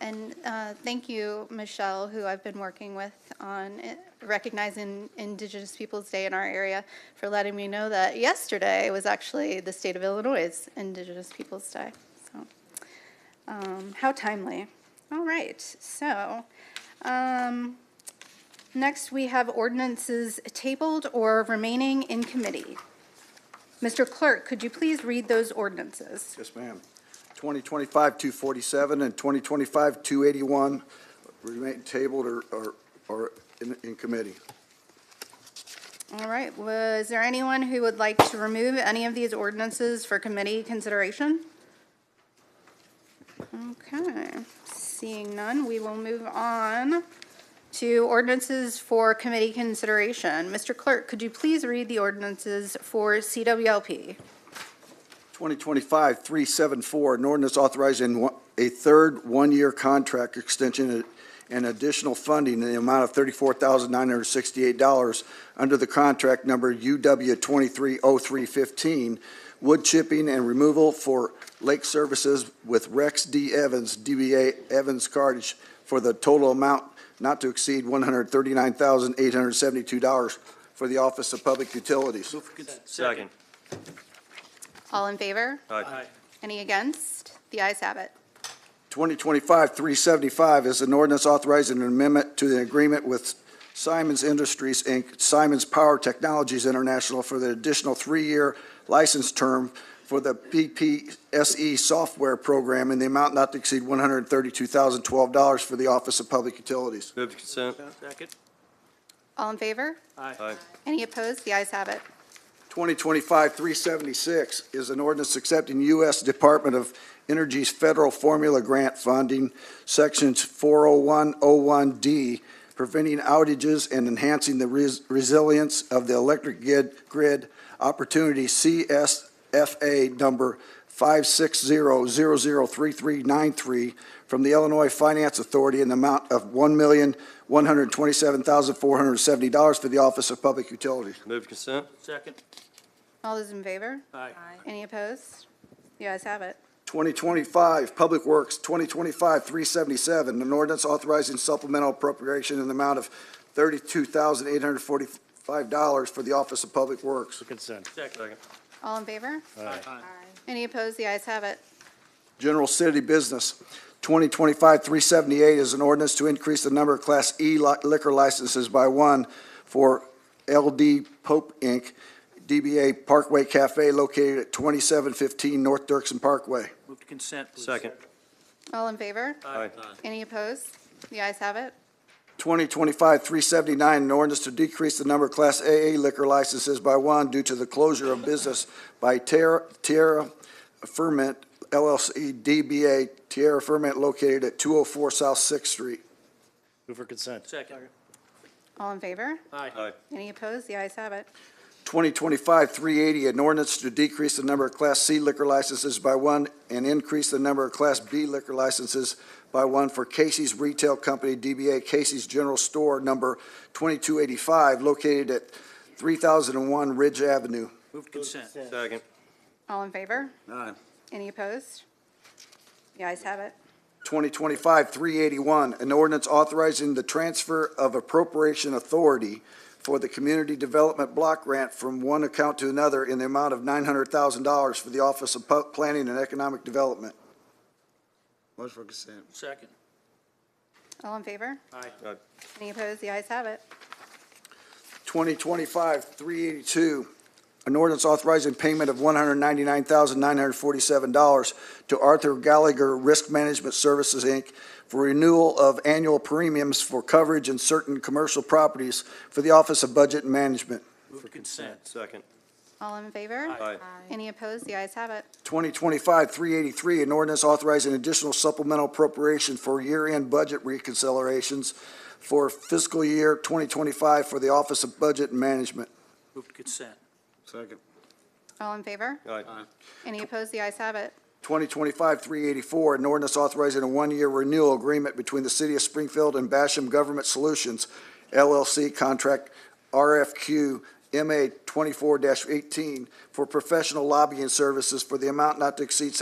And uh, thank you, Michelle, who I've been working with on it- recognizing Indigenous Peoples' Day in our area, for letting me know that yesterday was actually the state of Illinois' Indigenous Peoples' Day. So, um, how timely. All right, so, um, next we have ordinances tabled or remaining in committee. Mr. Clerk, could you please read those ordinances? Yes, ma'am. 2025-247 and 2025-281 remain tabled or, or- or in, in committee. All right, was there anyone who would like to remove any of these ordinances for committee consideration? Okay, seeing none, we will move on to ordinances for committee consideration. Mr. Clerk, could you please read the ordinances for CWLP? 2025-374, an ordinance authorizing one- a third one-year contract extension and additional funding in the amount of $34,968 under the contract number UW230315, wood chipping and removal for lake services with Rex D. Evans, DBA Evans Cartage, for the total amount not to exceed $139,872 for the Office of Public Utilities. Second. All in favor? Aye. Any against? The ayes have it. 2025-375 is an ordinance authorizing an amendment to the agreement with Simons Industries, Inc., Simons Power Technologies International for the additional three-year license term for the PPSE E software program in the amount not to exceed $132,012 for the Office of Public Utilities. Move to consent. Uh, Second. All in favor? Aye. Any opposed? The ayes have it. 2025-376 is an ordinance accepting U.S. Department of Energy's federal formula grant funding, Sections 40101D, preventing outages and enhancing the res- resilience of the electric grid- grid, Opportunity CSFA number 560003393 from the Illinois Finance Authority in the amount of $1,127,470 for the Office of Public Utilities. Move to consent. Second. All those in favor? Aye. Any opposed? The ayes have it. 2025, Public Works, 2025-377, an ordinance authorizing supplemental appropriation in the amount of $32,845 for the Office of Public Works. Consent. Second. All in favor? Aye. Any opposed? The ayes have it. General City Business, 2025-378 is an ordinance to increase the number of Class E li- liquor licenses by one for LD Pope Inc., DBA Parkway Cafe located at 2715 North Dirksen Parkway. Move to consent, please. Second. All in favor? Aye. Any opposed? The ayes have it. 2025-379, an ordinance to decrease the number of Class AA liquor licenses by one due to the closure of business by Terra Tierra Ferment LLC DBA Tierra Ferment located at 204 South Sixth Street. Move for consent. Second. All in favor? Aye. Any opposed? The ayes have it. 2025-380, an ordinance to decrease the number of Class C liquor licenses by one and increase the number of Class B liquor licenses by one for Casey's Retail Company, DBA Casey's General Store, number 2285, located at 3001 Ridge Avenue. Move to consent. Second. All in favor? Any opposed? The ayes have it. 2025-381, an ordinance authorizing the transfer of appropriation authority for the Community Development Block Grant from one account to another in the amount of $900,000 for the Office of Pu- Planning and Economic Development. Motion for consent. Second. All in favor? Aye. Aye. Any opposed? The ayes have it. 2025-382, an ordinance authorizing payment of $199,947 to Arthur Gallagher Risk Management Services, Inc. for renewal of annual premiums for coverage in certain commercial properties for the Office of Budget and Management. Move to consent. Second. All in favor? Aye. Any opposed? The ayes have it. 2025-383, an ordinance authorizing additional supplemental appropriation for year-end budget reconciliations for fiscal year 2025 for the Office of Budget and Management. Move to consent. Second. All in favor? Aye. Any opposed? The ayes have it. 2025-384, an ordinance authorizing a one-year renewal agreement between the City of Springfield and Basham Government Solutions LLC contract RFQ MA 24-18 for professional lobbying services for the amount not to exceed